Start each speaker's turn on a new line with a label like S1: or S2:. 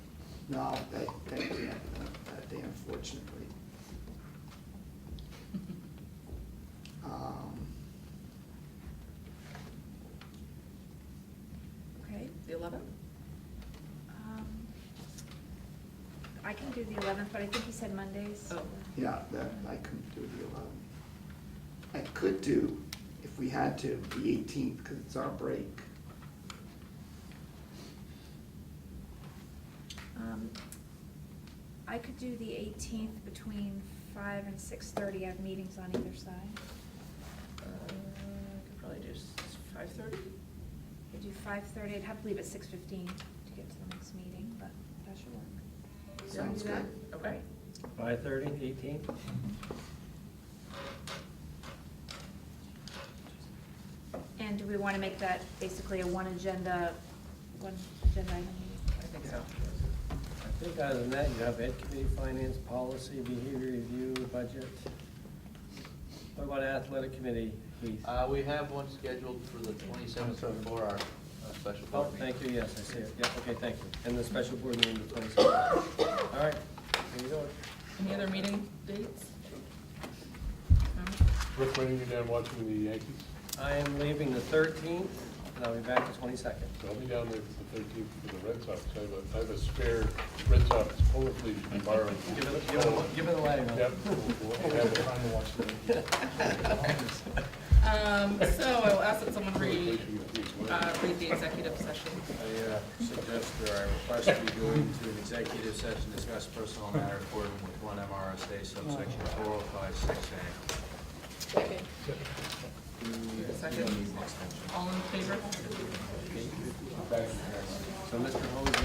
S1: No, they, they can't, uh, that they unfortunately. Um,
S2: Okay, the eleventh?
S3: Um, I can do the eleventh, but I think he said Mondays.
S2: Oh.
S1: Yeah, that, I couldn't do the eleventh. I could do, if we had to, the eighteenth, because it's our break.
S3: Um, I could do the eighteenth between five and six thirty. I have meetings on either side.
S2: Uh, I could probably do five thirty?
S3: I could do five thirty. I'd have to leave at six fifteen to get to the next meeting, but that should work.
S1: Sounds good.
S2: Okay.
S4: Five thirty, eighteenth?
S3: And do we want to make that basically a one agenda, one agenda item meeting?
S2: I think so.
S4: I think other than that, you have ed committee, finance, policy, behavior review, budget. What about athletic committee, Heath?
S5: Uh, we have one scheduled for the twenty-seventh for our uh, special
S4: Oh,
S5: board meeting.
S4: thank you, yes, I see it, yeah, okay, thank you. And the special board meeting, the twenty-seventh. All right, there you go.
S2: Any other meeting dates?
S6: Rick, when are you down watching the Yankees?
S4: I am leaving the thirteenth, and I'll be back the twenty-second.
S6: So I'll be down there for the thirteenth for the Red Sox. I have a, I have a spare Red Sox polo fleece to borrow.
S4: Give it, give it, give it away, man.
S6: Yep. we'll- we'll have it.
S2: Um, so I will ask that someone read, uh, read the executive session.
S7: I uh, suggest or I request we go into an executive session, to discuss personal matter according with one MRSA subsection four oh five six A.
S2: Second, all in favor?
S4: So Mr. Holmes,